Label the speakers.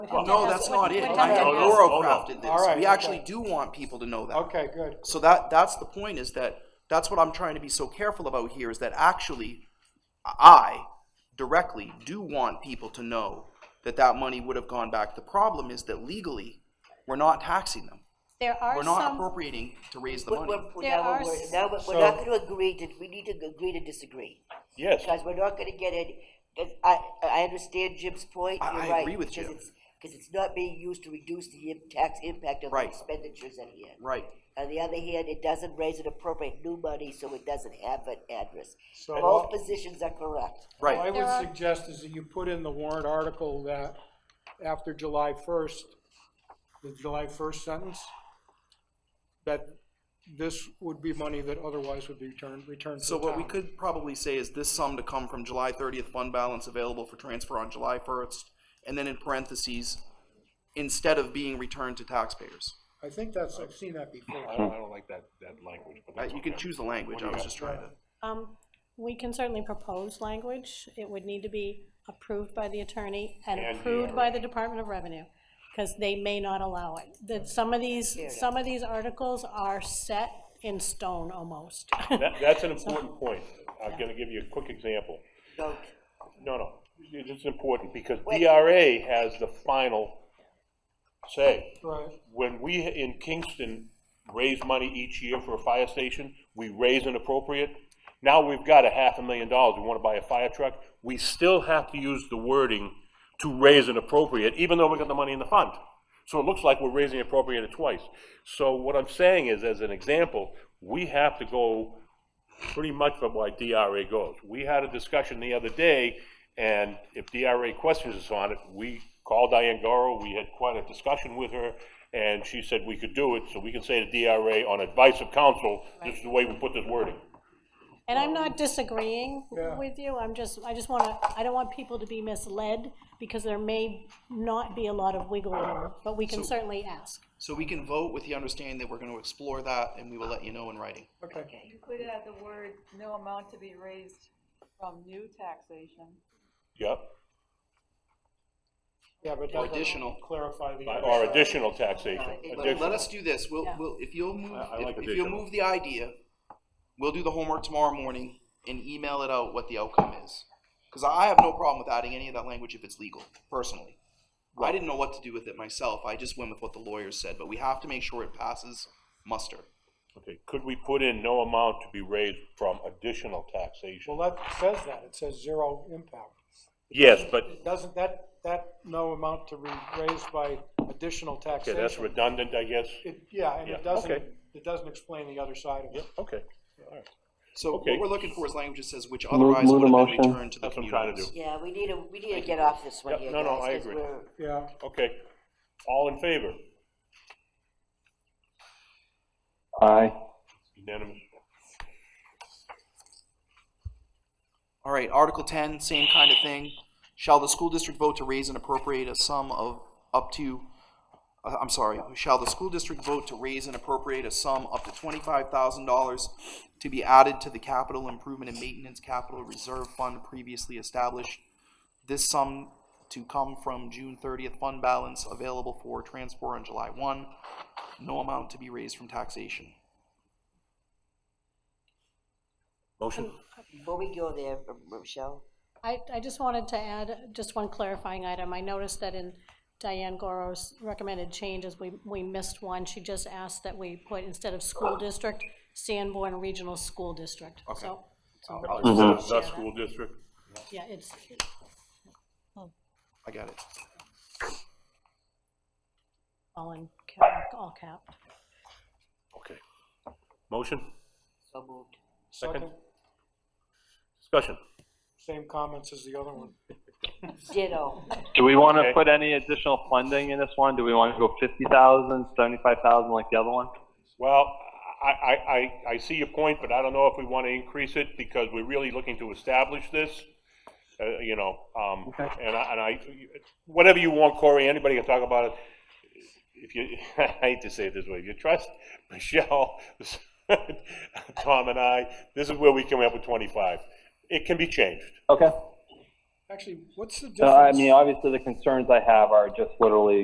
Speaker 1: Well, no, that's not it.
Speaker 2: what
Speaker 1: I had
Speaker 2: does it
Speaker 3: mean?
Speaker 1: Laura crafted
Speaker 2: Oh, All
Speaker 1: this.
Speaker 2: right,
Speaker 1: We actually
Speaker 2: okay.
Speaker 1: do want people to know that.
Speaker 2: Okay, good.
Speaker 1: So that, that's the point is that, that's what I'm trying to be so careful about here is that actually, I directly do want people to know that that money would have gone back. The problem is that legally, we're not taxing them.
Speaker 2: There
Speaker 1: We're
Speaker 2: are
Speaker 1: not
Speaker 2: some,
Speaker 1: appropriating to raise the
Speaker 3: We're,
Speaker 1: money.
Speaker 3: we're, we're
Speaker 2: There
Speaker 3: now,
Speaker 2: are
Speaker 3: we're,
Speaker 2: s-
Speaker 3: now we're,
Speaker 2: so-
Speaker 3: we're not gonna agree to, we need to g- agree to disagree,
Speaker 4: Yes,
Speaker 3: because we're not gonna get it, 'cause I, I understand Jim's point,
Speaker 1: I-
Speaker 3: you're
Speaker 1: I
Speaker 3: right,
Speaker 1: agree with
Speaker 3: because
Speaker 1: Jim.
Speaker 3: it's, because it's not being used to reduce the im- tax impact of the
Speaker 1: Right.
Speaker 3: expenditures at hand.
Speaker 1: Right.
Speaker 3: On the other hand, it doesn't raise and appropriate new money, so it doesn't have an address.
Speaker 2: So-
Speaker 3: Both positions are correct.
Speaker 2: what Oh, I
Speaker 1: Right.
Speaker 2: would
Speaker 5: There are-
Speaker 2: suggest is that you put in the warrant article that after July first, the July first sentence, that this would be money that otherwise would be returned, returned to
Speaker 1: So
Speaker 2: the
Speaker 1: what we
Speaker 2: town.
Speaker 1: could probably say is this sum to come from July thirtieth fund balance available for transfer on July first, and then in parentheses, instead of being returned to taxpayers.
Speaker 2: I think that's, I've seen that before.
Speaker 4: I don't, I don't like that, that language, but
Speaker 1: Uh,
Speaker 4: that's
Speaker 1: You can
Speaker 4: okay.
Speaker 1: choose the language, I was just trying to.
Speaker 5: Um, we can certainly propose language. It would need to be approved by the attorney and
Speaker 4: And the
Speaker 5: approved by the Department of Revenue, because they may not allow it. That some of these, some of these articles are set in stone almost.
Speaker 4: That, that's an important point. I'm gonna give you a quick example.
Speaker 3: Don't,
Speaker 4: No, no, it's important, because
Speaker 3: Wait.
Speaker 4: DRA has the final say.
Speaker 2: Right,
Speaker 4: When we in Kingston raise money each year for a fire station, we raise an appropriate. Now we've got a half a million dollars, we wanna buy a fire truck, we still have to use the wording to raise an appropriate, even though we got the money in the fund. So it looks like we're raising appropriated twice. So what I'm saying is, as an example, we have to go pretty much from why DRA goes. We had a discussion the other day, and if DRA questions us on it, we called Diane Goro, we had quite a discussion with her, and she said we could do it, so we can say to DRA, on advice of council, this is the way we put this wording.
Speaker 5: And I'm not disagreeing
Speaker 2: Yeah.
Speaker 5: with you, I'm just, I just wanna, I don't want people to be misled, because there may not be a lot of wiggle room, but we can certainly ask.
Speaker 1: So we can vote with the understanding that we're gonna explore that, and we will let you know in writing.
Speaker 2: okay.
Speaker 6: Included at the word, no amount to be raised from new taxation.
Speaker 4: Yep,
Speaker 2: Yeah, but
Speaker 1: Or
Speaker 2: that
Speaker 1: additional.
Speaker 2: doesn't clarify the.
Speaker 4: or additional taxation,
Speaker 1: Let, let
Speaker 4: additional.
Speaker 1: us do this, we'll,
Speaker 5: Yeah.
Speaker 1: we'll, if you'll move,
Speaker 4: I- I
Speaker 1: if-
Speaker 4: like
Speaker 1: if you'll
Speaker 4: additional.
Speaker 1: move the idea, we'll do the homework tomorrow morning and email it out what the outcome is. Cause I have no problem with adding any of that language if it's legal, personally. I didn't know what to do with it myself, I just went with what the lawyers said, but we have to make sure it passes muster.
Speaker 4: Okay, could we put in no amount to be raised from additional taxation?
Speaker 2: Well, that says that, it says zero impact.
Speaker 4: Yes, but,
Speaker 2: Doesn't that, that no amount to be raised by additional
Speaker 4: okay,
Speaker 2: taxation?
Speaker 4: that's redundant, I guess.
Speaker 2: It- Yeah, and
Speaker 4: Yeah,
Speaker 2: it doesn't,
Speaker 4: okay.
Speaker 2: it doesn't explain the other side of
Speaker 4: Yep,
Speaker 2: it.
Speaker 4: okay, all right.
Speaker 1: So
Speaker 4: Okay.
Speaker 1: what we're looking for is language that says which otherwise
Speaker 7: move
Speaker 1: would
Speaker 7: the
Speaker 1: have been
Speaker 7: motion.
Speaker 1: returned to the
Speaker 4: That's what I'm trying to
Speaker 1: communities.
Speaker 3: yeah, we need to, we need to get off this one
Speaker 4: Yep,
Speaker 3: here,
Speaker 4: no,
Speaker 3: guys,
Speaker 4: no, I
Speaker 3: 'cause
Speaker 4: agree.
Speaker 3: we're-
Speaker 2: Yeah,
Speaker 4: Okay, all in favor?
Speaker 7: Aye.
Speaker 4: Unanimous.
Speaker 1: All right, Article ten, same kind of thing. Shall the school district vote to raise and appropriate a sum of up to, uh, I'm sorry, shall the school district vote to raise and appropriate a sum up to twenty-five thousand dollars to be added to the capital improvement and maintenance capital reserve fund previously established? This sum to come from June thirtieth fund balance available for transfer on July one. No amount to be raised from taxation.
Speaker 4: Motion?
Speaker 3: Before we go there, Michelle,
Speaker 5: I, I just wanted to add just one clarifying item. I noticed that in Diane Goro's recommended changes, we, we missed one. She just asked that we put, instead of school district, Sanborn Regional School District.
Speaker 1: Okay.
Speaker 5: So, so,
Speaker 4: The school district?
Speaker 5: yeah, it's,
Speaker 1: I got it.
Speaker 5: all in, cap- all capped.
Speaker 4: Okay. Motion,
Speaker 3: so moved.
Speaker 4: Second.
Speaker 2: second,
Speaker 4: discussion.
Speaker 2: same comments as the other one.
Speaker 3: Ditto.
Speaker 7: Do we want
Speaker 4: Okay.
Speaker 7: to put any additional funding in this one? Do we want to go 50,000, 75,000 like the other one?
Speaker 4: Well, I, I, I, I see your point, but I don't know if we want to increase it because we're really looking to establish this. Uh, you know, um,
Speaker 7: Okay.
Speaker 4: and I, and I, whatever you want, Corey, anybody can talk about it. If you, I hate to say it this way, if you trust Michelle, Tom and I, this is where we come up with twenty-five. It can be changed.
Speaker 7: Okay.
Speaker 2: Actually, what's the
Speaker 7: So I
Speaker 2: difference?
Speaker 7: Uh, mean, obviously, the concerns I have are just literally